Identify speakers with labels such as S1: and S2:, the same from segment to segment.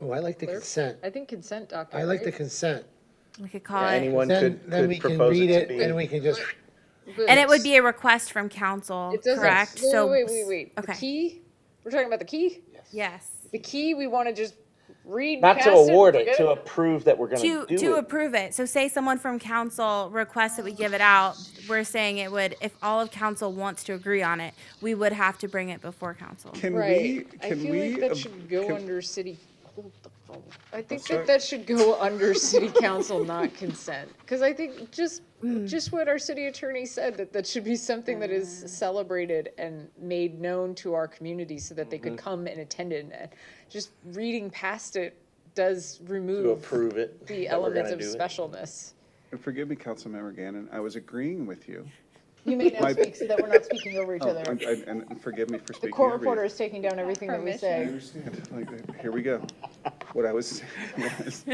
S1: Oh, I like the consent.
S2: I think consent doctor,
S1: I like the
S2: right?
S1: consent.
S3: We could
S4: Yeah,
S3: call it,
S4: Anyone
S1: Then,
S4: could,
S1: then we
S4: could
S1: can
S4: propose
S1: read
S4: it
S1: it
S4: to
S1: and
S4: be.
S1: we can just,
S2: But
S3: and it would be a request from council,
S2: It doesn't-
S3: correct?
S2: Wait,
S3: So,
S2: Wait, wait, wait, the
S3: Okay.
S2: key, we're talking about the key?
S3: Yes.
S2: The key, we want to just read.
S4: Not to
S2: past and
S4: award it,
S2: forget
S4: to approve that we're gonna do
S3: To,
S4: it.
S3: to approve it. So say someone from council requests that we give it out, we're saying it would, if all of council wants to agree on it, we would have to bring it before council.
S5: Can we,
S2: Right, I
S5: can
S2: feel like
S5: we,
S2: that
S5: ab-
S2: should go
S5: can-
S2: under city, hold the phone. I think that that should go under city council, not consent. Because I think just, just what our city attorney said, that that should be something that is celebrated and made known to our community so that they could
S5: Mm-hmm.
S2: come and attend it. And Just reading past it does
S4: To
S2: remove
S4: approve
S2: the
S4: it. that we're
S2: element
S4: gonna
S2: of
S4: do it.
S2: specialness.
S5: and forgive me, Councilmember Gannon, I was agreeing with you.
S2: You may now
S5: My-
S2: speak so that we're not speaking over each
S5: Oh,
S2: other.
S5: And and- and forgive me for
S2: The
S5: speaking
S2: court
S5: over
S2: reporter
S5: you.
S2: is taking down everything that we say.
S5: I understand. Like, Here we go. What I was saying was,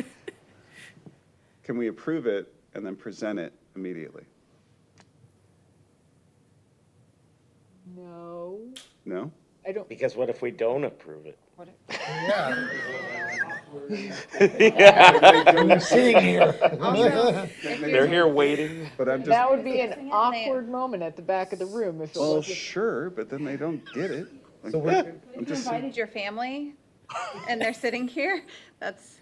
S5: can we approve it and then present it immediately?
S2: No,
S5: No?
S2: I don't.
S4: Because what if we don't approve it?
S1: sitting here.
S4: They're here waiting.
S5: But I'm just,
S2: That would be an awkward moment at the back of the room if it
S1: Oh,
S5: well,
S2: was.
S5: sure, but then they don't get it. Like,
S1: So we're-
S5: I'm
S6: You
S5: just saying.
S6: invited your family, and they're sitting here? That's,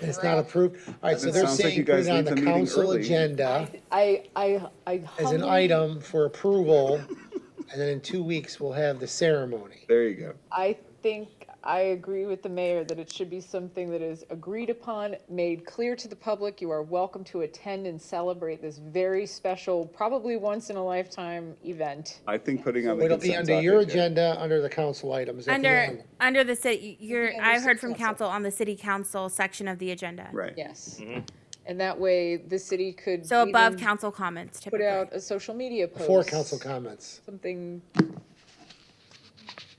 S1: It's not approved. All right, so
S5: It
S1: they're
S5: sounds like
S1: saying
S5: you
S1: put
S5: guys
S1: it on
S5: leave
S1: the
S5: the meeting
S1: council
S5: early.
S1: agenda
S2: I, I, I
S1: as an
S2: humbly-
S1: item for approval. And then in two weeks, we'll have the ceremony.
S5: There you go.
S2: I think I agree with the mayor that it should be something that is agreed upon, made clear to the public. You are welcome to attend and celebrate this very special, probably once in a lifetime event.
S5: I think putting on the
S1: It'll be
S5: consent
S1: under your
S5: docket-
S1: agenda, under the council items at the
S3: Under,
S1: end.
S3: under the city, you're,
S2: under
S3: I've
S2: city
S3: heard from
S2: council.
S3: council on the city council section of the agenda.
S5: Right.
S2: Yes.
S1: Mm-hmm.
S2: And that way the city could.
S3: So above
S2: even
S3: council comments
S2: Put
S3: typically.
S2: out a social media post.
S1: Before council comments.
S2: Something.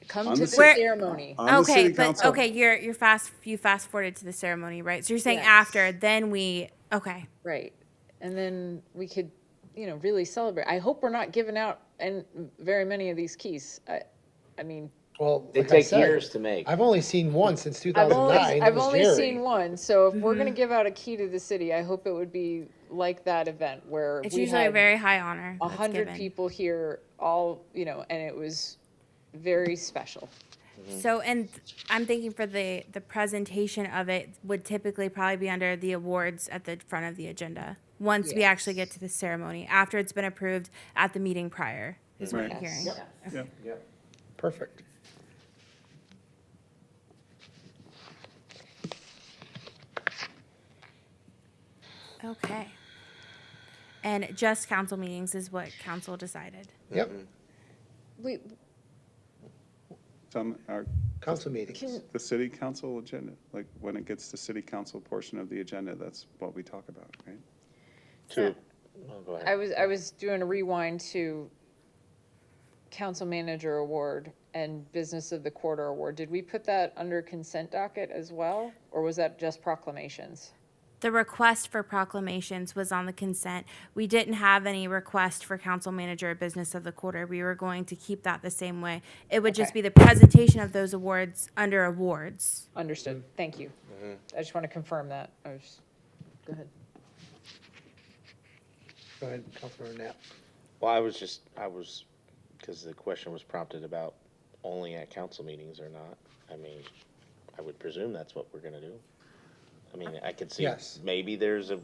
S2: Come
S5: On
S2: to
S5: the
S2: the
S5: ci-
S2: ceremony.
S5: On the
S3: Okay,
S5: city
S3: but,
S5: council.
S3: okay, you're, you're fast, you fast forwarded to the ceremony, right? So you're saying
S2: Yes.
S3: after, then we, okay.
S2: Right. And then we could, you know, really celebrate. I hope we're not giving out and very many of these keys. I, I mean,
S1: Well,
S4: They
S1: like I
S4: take
S1: said,
S4: years to make.
S1: I've only seen one since two
S2: I've
S1: thousand
S2: only,
S1: nine.
S2: I've only seen one. So if we're going
S3: Mm-hmm.
S2: to give out a key to the city, I hope it would be like that event where
S3: It's
S2: we
S3: usually a
S2: had
S3: very high honor.
S2: a
S3: that's
S2: hundred
S3: given.
S2: people here, all, you know, and it was very special.
S3: So, and I'm thinking for the, the presentation of it would typically probably be under the awards at the front of the agenda. Once we actually get to the ceremony, after it's been approved at the meeting prior, is what I'm
S5: Right.
S3: hearing.
S1: Perfect.
S3: Okay. And just council meetings is what council decided.
S1: Yep,
S2: We,
S5: Some, our,
S1: council meetings.
S2: Can-
S5: the city council agenda, like when it gets to city council portion of the agenda, that's what we talk about, right?
S4: To, oh, go ahead.
S2: I was, I was doing a rewind to council manager award and business of the quarter award. Did we put that under consent docket as well? Or was that just proclamations?
S3: The request for proclamations was on the consent. We didn't have any request for council manager or business of the quarter. We were going to keep that the same way. It would just
S2: Okay.
S3: be the presentation of those awards under awards.
S2: Understood. Thank you. I just want to confirm that. I was, go ahead.
S1: Go ahead, Councilmember Knapp.
S4: Well, I was just, I was, because the question was prompted about only at council meetings or not. I mean, I would presume that's what we're gonna do. I mean, I could see,
S1: Yes.
S4: maybe there's a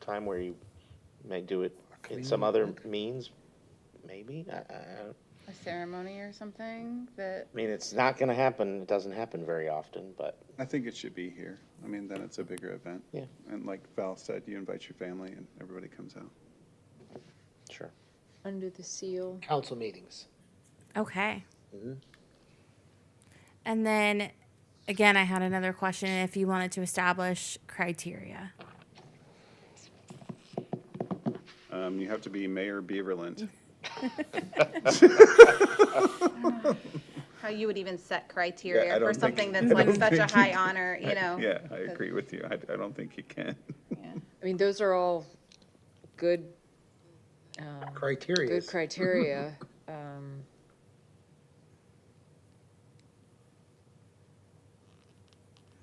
S4: time where you may do it in some other means, maybe? I, I, I don't-
S6: a ceremony or something that,
S4: I mean, it's not gonna happen, it doesn't happen very often, but
S5: I think it should be here. I mean, then it's a bigger event.
S4: Yeah.
S5: And like Val said, you invite your family and everybody comes out.
S4: sure.
S2: Under the seal.
S1: Council meetings.
S3: Okay. And then, again, I had another question, if you wanted to establish criteria.
S5: Um, you have to be Mayor Beaverland.
S6: how you would even set
S5: Yeah, I
S6: criteria
S5: don't
S6: for
S5: think-
S6: something
S5: I
S6: that's like
S5: don't
S6: such a
S5: think
S6: high
S5: you-
S6: honor, you know?
S5: Yeah, I agree with you. I, I don't think you can.
S2: I mean, those are all good,
S1: Criteria.
S2: good criteria. Um,